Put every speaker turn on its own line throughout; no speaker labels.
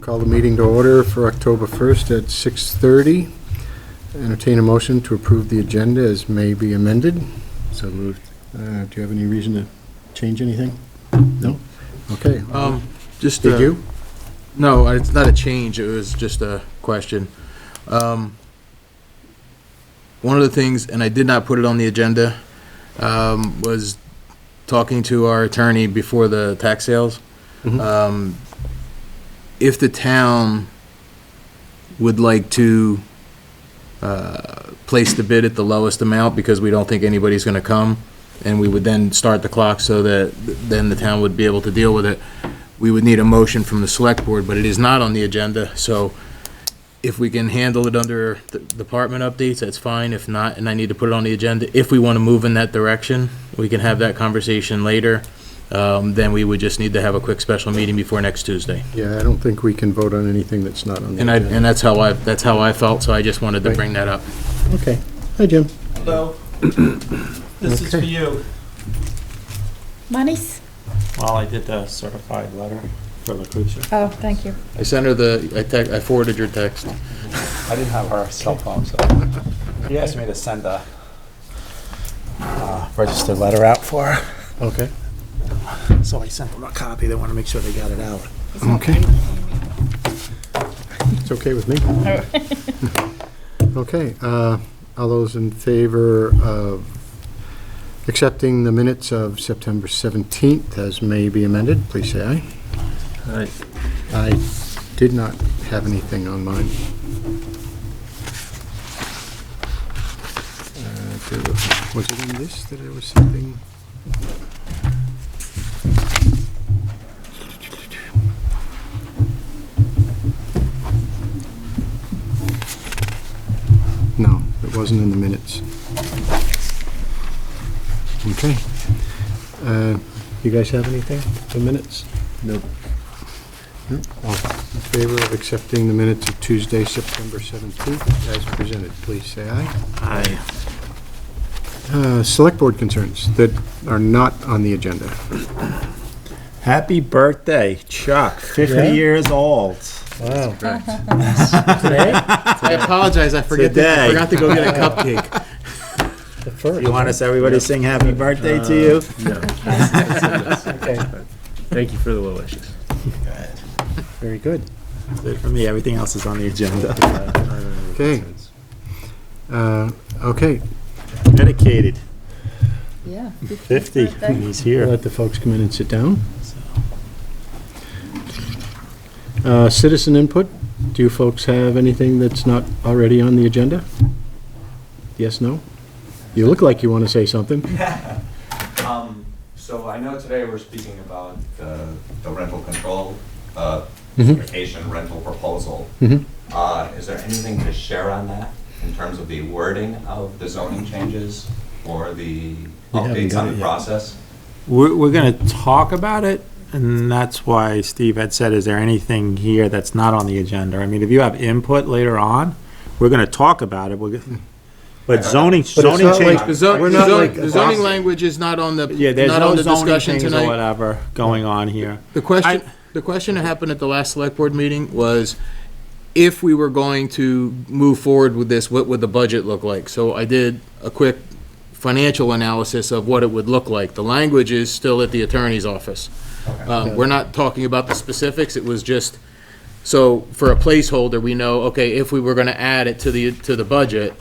Call the meeting to order for October 1st at 6:30. Entertain a motion to approve the agenda as may be amended. So moved. Uh, Do you have any reason to change anything? No? Okay.
Um, just.
Did
uh,
you?
No, it's not a change, it was just a question. Um, one of the things, and I did not put it on the agenda, um, was talking to our attorney before the tax sales.
Mhm.
Um, if the town would like to, uh, place the bid at the lowest amount because we don't think anybody's gonna come, and we would then start the clock so that then the town would be able to deal with it, we would need a motion from the select board, but it is not on the agenda, so if we can handle it under the department updates, that's fine. If not, and I need to put it on the agenda, if we want to move in that direction, we can have that conversation later. Um, Then we would just need to have a quick special meeting before next Tuesday.
Yeah, I don't think we can vote on anything that's not on the
And I,
agenda.
and that's how I, that's how I felt, so I just wanted to bring that up.
Okay. Hi, Jim.
Hello. This is for
Okay.
you.
Monies?
Well, I did the certified letter for LaCucci.
Oh, thank you.
I sent her the, I text, I forwarded your text.
I didn't have her cell phone, so he asked me to send a uh, registered letter out for her,
Okay.
so I sent them a copy. They want to make sure they got it out.
Okay. It's okay with me. Okay, uh, all those in favor of accepting the minutes of September 17th as may be amended, please say aye.
Alright.
I did not have anything on mine. Uh, there wa- Was it in this that there was something? No, it wasn't in the minutes. Okay. Uh, You guys have anything for minutes? Nope. All in favor of accepting the minutes of Tuesday, September 17th, as presented, please say aye.
Aye.
Uh, Select Board concerns that are not on the agenda.
Happy birthday, Chuck. 50
Yeah?
years old.
Wow.
Today?
I apologize, I forget, to- I
Today.
forgot to go get a cupcake.
The first.
You want us, everybody, to sing happy birthday to you?
Thank you for the well wishes.
Very good.
Good For me, everything else is on the agenda.
Okay. Uh, Okay,
Dedicated.
Yeah.
50. and He's here.
let the folks come in and sit down. Uh, Citizen input, do you folks have anything that's not already on the agenda? Yes, no? You look like you want to say something.
Um, so I know today we're speaking about the, the rental control, uh,
Mm-hmm.
Mhm.
vacation rental proposal.
Mhm.
Uh, is there anything to share on that in terms of the wording of the zoning changes or the
haven't
updates
got
on
it
the
yet.
process?
We're, we're going to talk about it, and that's why Steve had said, is there anything here that's not on the agenda? I mean, if you have input later on, we're going to talk about it. We're gonna- But zoning, zoning
not
change.
The zo-
We're
the
not
zoning,
like
the zoning
boxing.
language is not on the,
Yeah, there's
not on
no
the
zoning
discussion
things or
tonight.
whatever going on here.
The question, the question that happened at the last select board meeting was if we were going to move forward with this, what would the budget look like? So I did a quick financial analysis of what it would look like. The language is still at the attorney's office. Um, we're not talking about the specifics, it was just, so for a placeholder, we know, okay, if we were gonna add it to the, to the budget,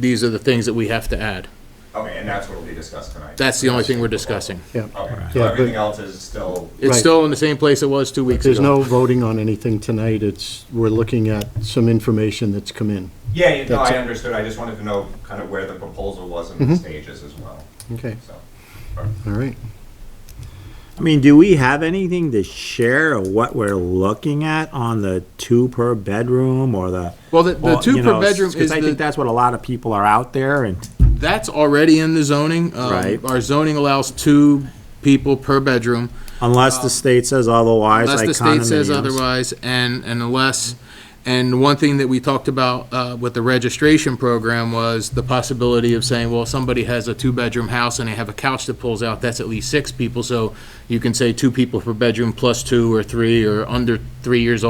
these are the things that we have to add.
Okay, and that's what will be discussed tonight?
That's the only thing we're discussing.
Okay,
Yeah,
so
but-
everything else is still,
Right.
It's still in the same place it was two weeks ago.
There's no voting on anything tonight, it's, we're looking at some information that's come in.
yeah, you know,
That's
I
it.
understood, I just wanted to know kind of where the proposal was
Mm-hmm.
in the stages as well,
Okay,
so.
all right.
I mean, do we have anything to share of what we're looking at on the two per bedroom or the?
Well, the, the
or,
two
you
per
know,
bedroom is
'cause I
the-
think that's what a lot of people are out there and
that's already in the zoning. Um,
Right.
Our zoning allows two people per bedroom,
unless the state says otherwise,
Um, unless
like
the state says
condominiums.
otherwise, and, and unless, and one thing that we talked about, uh, with the registration program was the possibility of saying, well, if somebody has a two-bedroom house and they have a couch that pulls out, that's at least six people, so you can say two people per bedroom plus two or three or under three years old.